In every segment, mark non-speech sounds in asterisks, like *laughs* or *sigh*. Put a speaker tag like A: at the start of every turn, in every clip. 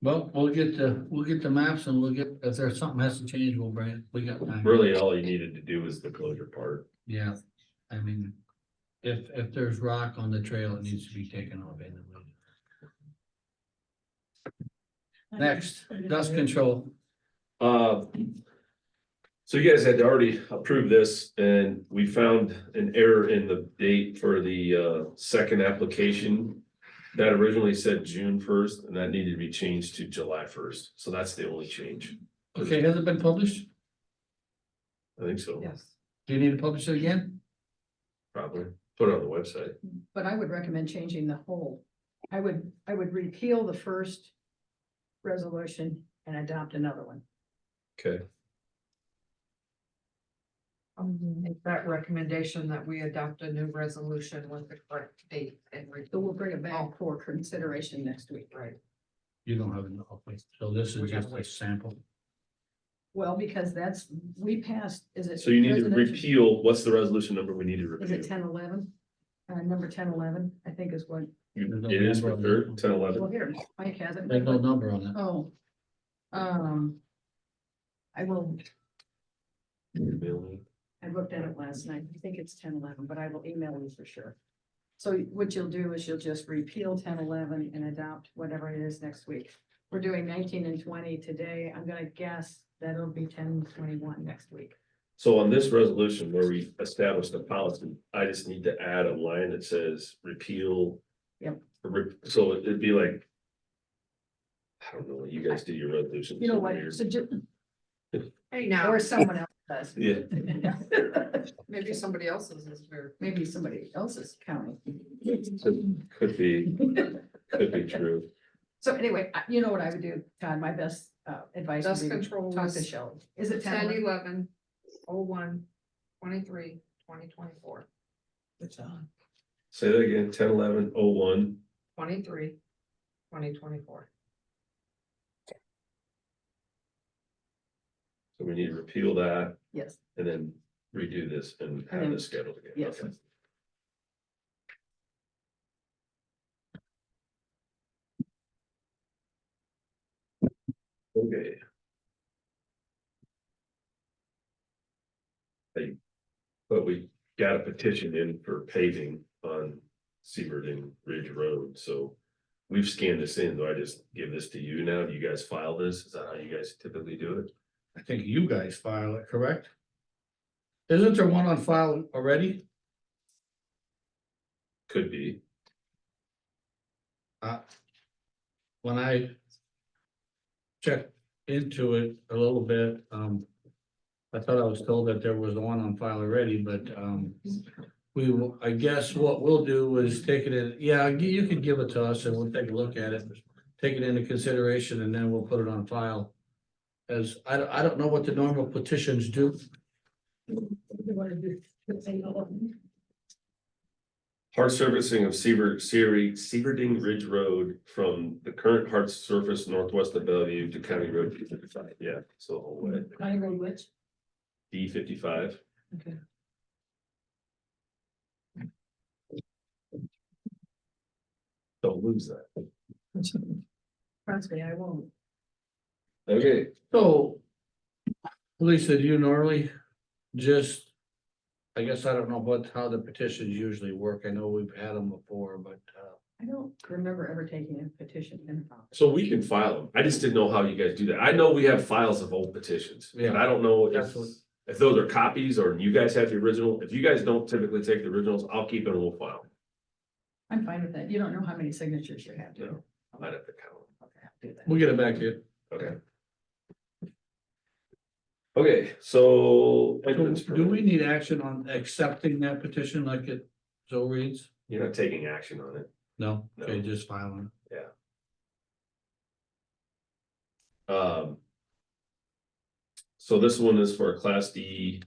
A: Well, we'll get the, we'll get the maps and we'll get, if there's something has to change, we'll bring it, we got time.
B: Really, all you needed to do was the closure part.
A: Yeah, I mean, if, if there's rock on the trail, it needs to be taken off anyway. Next, dust control.
B: Uh. So you guys had already approved this and we found an error in the date for the uh second application. That originally said June first and that needed to be changed to July first. So that's the only change.
A: Okay, has it been published?
B: I think so,
C: Yes,
A: Do you need to publish it again?
B: probably. Put it on the website.
C: but I would recommend changing the whole. I would, I would repeal the first resolution and adopt another one.
B: Okay.
D: Make Mm-hmm. that recommendation that we adopt a new resolution with the correct date and. re-
C: So we'll bring it back for consideration next week.
D: Right,
A: You don't have enough, okay, so this
D: We
A: is
D: gotta
A: just a
D: wait.
A: sample.
C: Well, because that's, we passed, is it?
B: So you need to
C: residential-
B: repeal, what's the resolution number we need to
C: Is it
B: repeal?
C: ten eleven? Uh, number ten eleven, I think is what,
B: You- It is for third, ten eleven.
C: well, here, Mike has it.
A: There's no number on it.
C: Oh. Um. I will, I looked at it last night. I think it's ten eleven, but I will email you for sure. So what you'll do is you'll just repeal ten eleven and adopt whatever it is next week. We're doing nineteen and twenty today. I'm gonna guess that it'll be ten twenty-one next week.
B: So on this resolution where we established the policy, I just need to add a line that says repeal.
C: Yep.
B: Re- So it'd be like. I don't know, you guys do your resolutions.
C: You know
B: so
C: what,
B: weird.
C: so just,
D: hey
C: or
D: now,
C: someone else
B: Yeah,
C: does.
D: maybe somebody else's is here.
C: *laughs* Maybe somebody else's county.
B: could be, could be true.
C: So anyway, I- you know what I would do, Todd, my best uh, advice
D: Dust
C: would be
D: control
C: talk to
D: is
C: Shelley. Is it
D: ten,
C: ten?
D: eleven, oh, one, twenty-three, twenty, twenty-four,
B: Say that again, ten, eleven, oh, one,
D: twenty-three, twenty, twenty-four.
B: so we need to repeal that
C: Yes,
B: and then redo this and have
C: then-
B: this scheduled again.
C: yes.
B: Okay. Okay. Hey, but we got a petition in for paving on Seabird and Ridge Road, so. We've scanned this in, do I just give this to you now? Do you guys file this? Is that how you guys typically do it?
A: I think you guys file it, correct? Isn't there one on file already?
B: Could be,
A: Uh, When I. Checked into it a little bit, um. I thought I was told that there was one on file already, but, um. We will, I guess what we'll do is take it in, yeah, you you can give it to us and we'll take a look at it. Take it into consideration and then we'll put it on file. As, I, don't- I don't know what the normal petitions do.
B: Hard surfacing of Seaver, Seary, Seaverding Ridge Road from the current hard surface northwest of Bellevue to County Road D fifty-five, yeah, so the whole way,
C: County Road which?
B: D fifty-five.
C: Mm-hmm. Okay.
B: Don't lose that.
C: Trust me, I won't.
B: Okay,
A: So. Lisa, do you normally just? I guess I don't know what, how the petitions usually work. I know we've had them before, but uh.
C: I don't remember ever taking a petition in. file.
B: so we can file them, I just didn't know how you guys do that, I know we have files of old petitions, and I don't know if.
A: That's what-
B: If those are copies or you guys have the original, if you guys don't typically take the originals, I'll keep it and we'll file.
C: I'm fine with that. You don't know how many signatures you have, do you?
B: No. I might have to count.
C: Okay, I'll do that.
A: We'll get it back to you.
B: Okay. Okay, so. entrance
A: So Do we
B: permit.
A: need action on accepting that petition like it so reads?
B: You're not taking action on it.
A: No, okay,
B: No.
A: just filing.
B: Um. So this one is for a class D.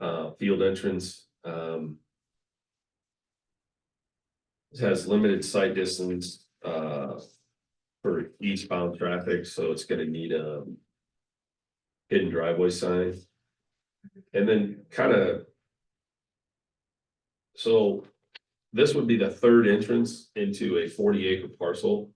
B: Uh, field entrance, um. It has limited sight distance, uh. For eastbound traffic, so it's gonna need a. Hidden driveway sign. And then kind of. So this would be the third entrance into a forty acre parcel.